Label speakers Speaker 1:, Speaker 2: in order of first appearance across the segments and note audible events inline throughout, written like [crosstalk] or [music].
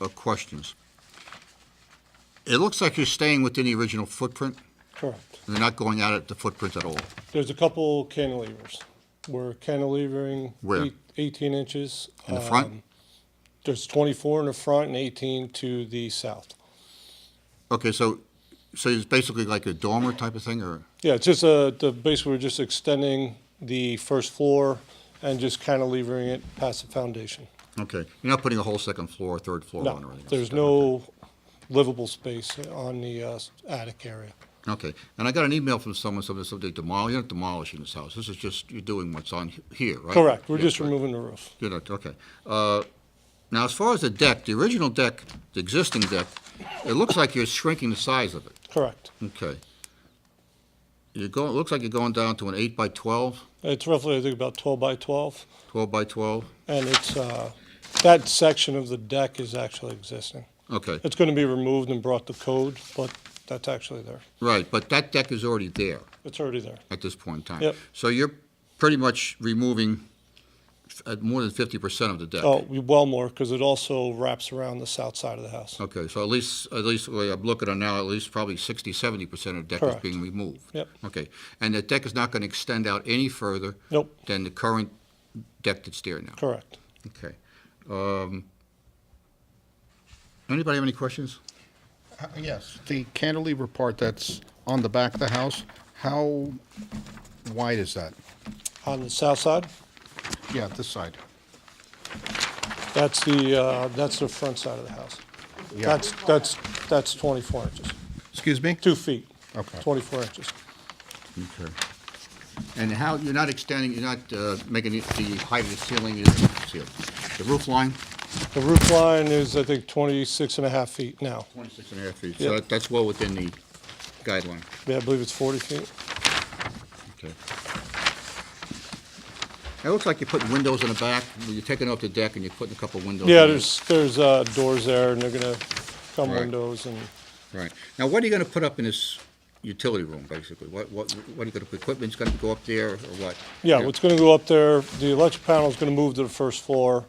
Speaker 1: uh, questions. It looks like you're staying within the original footprint,
Speaker 2: Correct.
Speaker 1: and they're not going out at the footprint at all.
Speaker 2: There's a couple cantilevers. We're cantilevering
Speaker 1: Where?
Speaker 2: eight- 18 inches.
Speaker 1: In the front?
Speaker 2: Um, There's 24 in the front and 18 to the south.
Speaker 1: Okay, so, so it's basically like a dormer type of thing, or,
Speaker 2: Yeah, it's just, uh, the, basically, we're just extending the first floor and just cantilevering it past the foundation.
Speaker 1: okay. You're not putting a whole second floor, third floor on or
Speaker 2: No,
Speaker 1: anything?
Speaker 2: there's no livable space on the uh, attic area.
Speaker 1: Okay, and I got an email from someone, something, something demolishing, you're not demolishing this house, this is just, you're doing what's on he- here, right?
Speaker 2: Correct, we're
Speaker 1: Yeah,
Speaker 2: just
Speaker 1: right.
Speaker 2: removing the roof.
Speaker 1: You're not, okay. Uh, Now, as far as the deck, the original deck, the existing deck, it looks like you're shrinking the size of it,
Speaker 2: Correct.
Speaker 1: okay. You're going, it looks like you're going down to an eight by 12,
Speaker 2: It's roughly, I think, about 12 by 12,
Speaker 1: 12 by 12,
Speaker 2: and it's, uh, that section of the deck is actually existing.
Speaker 1: okay,
Speaker 2: It's going to be removed and brought to code, but that's actually there.
Speaker 1: right, but that deck is already there
Speaker 2: It's already there.
Speaker 1: at this point in time.
Speaker 2: Yep.
Speaker 1: So you're pretty much removing f- uh, more than 50% of the deck.
Speaker 2: Oh, we- well more, because it also wraps around the south side of the house.
Speaker 1: Okay, so at least, at least, the way I'm looking at it now, at least probably 60, 70% of the deck is
Speaker 2: Correct.
Speaker 1: being removed?
Speaker 2: Yep.
Speaker 1: Okay, and the deck is not going to extend out any further?
Speaker 2: Nope.
Speaker 1: Than the current deck that's there now?
Speaker 2: Correct.
Speaker 1: Okay. Um, Anybody have any questions?
Speaker 3: Uh, Yes, the cantilever part that's on the back of the house, how wide is that?
Speaker 2: On the south side,
Speaker 3: Yeah, this side.
Speaker 2: that's the, uh, that's the front side of the house.
Speaker 3: Yeah.
Speaker 2: That's, that's, that's 24 inches,
Speaker 3: Excuse me?
Speaker 2: two feet.
Speaker 3: Okay.
Speaker 2: 24 inches.
Speaker 1: Okay. And how, you're not extending, you're not uh, making it the height of the ceiling is sealed? The roof line,
Speaker 2: The roof line is, I think, 26 and a half feet now.
Speaker 1: 26 and a half feet,
Speaker 2: Yep.
Speaker 1: so that- that's well within the guideline.
Speaker 2: Yeah, I believe it's 40 feet.
Speaker 1: Okay. It looks like you're putting windows in the back, you're taking out the deck and you're putting a couple windows.
Speaker 2: Yeah,
Speaker 1: in.
Speaker 2: there's, there's uh, doors there, and they're going to come
Speaker 1: Right.
Speaker 2: windows and...
Speaker 1: Right. Now, what are you gonna put up in this utility room, basically? What, what, what are you gonna, equipment's gonna go up there or what?
Speaker 2: Yeah, what's going to go up there, the electric panel is going to move to the first floor.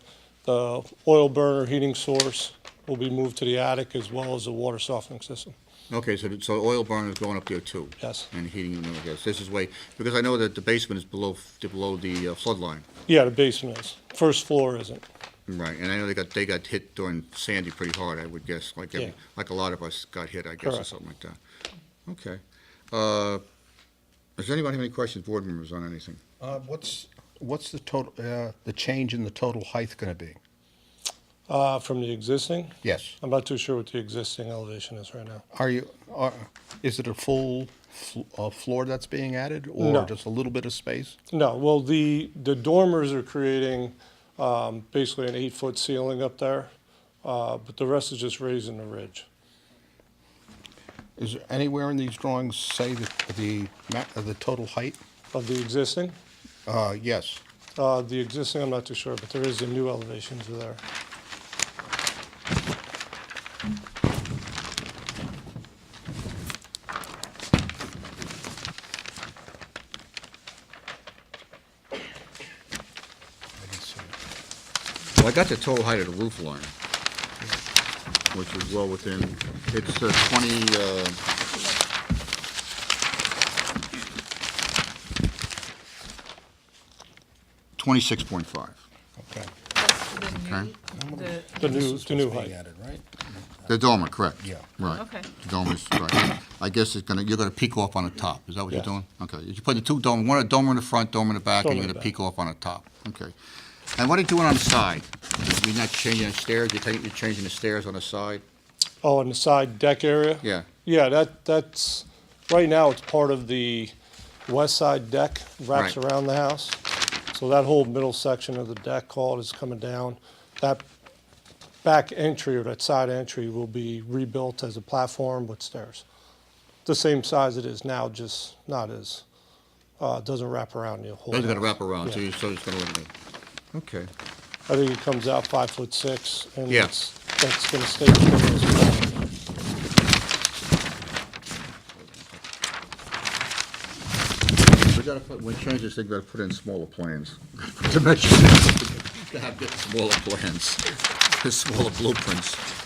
Speaker 2: The oil burner heating source will be moved to the attic as well as the water softening system.
Speaker 1: Okay, so, so oil burner is going up there too?
Speaker 2: Yes.
Speaker 1: And heating and all that. This is way, because I know that the basement is below, below the uh, flood line.
Speaker 2: Yeah, the basement is. First floor isn't.
Speaker 1: Right, and I know they got, they got hit during Sandy pretty hard, I would guess, like, every-
Speaker 2: Yeah.
Speaker 1: like a lot of us got hit, I guess, or
Speaker 2: Correct.
Speaker 1: something like that. Okay. Uh, Does anybody have any questions, board members, on anything?
Speaker 3: Uh, What's, what's the total, uh, the change in the total height going to be?
Speaker 2: Uh, From the existing,
Speaker 3: Yes.
Speaker 2: I'm not too sure what the existing elevation is right now.
Speaker 3: Are you, are, is it a full fl- uh, floor that's being added? Or
Speaker 2: No.
Speaker 3: just a little bit of space?
Speaker 2: No, well, the, the dormers are creating um, basically an eight-foot ceiling up there, uh, but the rest is just raising the ridge.
Speaker 3: Is there anywhere in these drawings say that the, ma- uh, the total height?
Speaker 2: Of the existing,
Speaker 3: Uh, Yes.
Speaker 2: uh, the existing, I'm not too sure, but there is a new elevation to there.
Speaker 3: I didn't see it.
Speaker 1: Well, I got the total height of the roof line, which is well within, it's uh, 20, uh, Twenty-six point five.
Speaker 3: Okay.
Speaker 1: Okay.
Speaker 2: The
Speaker 3: This
Speaker 2: new,
Speaker 3: is
Speaker 2: the new
Speaker 3: what's being
Speaker 2: height.
Speaker 3: added, right?
Speaker 1: The dormer, correct?
Speaker 3: Yeah.
Speaker 1: Right.
Speaker 4: Okay.
Speaker 1: The dormer's, right. I guess it's gonna, you're gonna peak off on the top, is that what you're
Speaker 2: Yes.
Speaker 1: doing? Okay, you're putting two dormer, one a dormer in the front, dormer in the back, and
Speaker 2: Dormer
Speaker 1: you're
Speaker 2: in the
Speaker 1: gonna
Speaker 2: back.
Speaker 1: peak off on the top, okay. And what are you doing on the side? You're not changing the stairs, you're taking, you're changing the stairs on the side?
Speaker 2: Oh, on the side deck area?
Speaker 1: Yeah.
Speaker 2: Yeah, that, that's, right now, it's part of the west side deck, wraps
Speaker 1: Right.
Speaker 2: around the house. So that whole middle section of the deck called is coming down. That back entry or that side entry will be rebuilt as a platform with stairs. The same size it is now, just not as, uh, doesn't wrap around the whole.
Speaker 1: Those are gonna
Speaker 2: house.
Speaker 1: wrap around, so
Speaker 2: Yeah.
Speaker 1: you, so it's gonna eliminate. Okay.
Speaker 2: I think it comes out five foot six, and
Speaker 1: Yeah.
Speaker 2: it's, that's gonna stay. the same as well.
Speaker 1: We gotta put, when we change this thing, we gotta put in smaller plans. [laughs] Dimensions. Gotta have [laughs] smaller plans, smaller blueprints.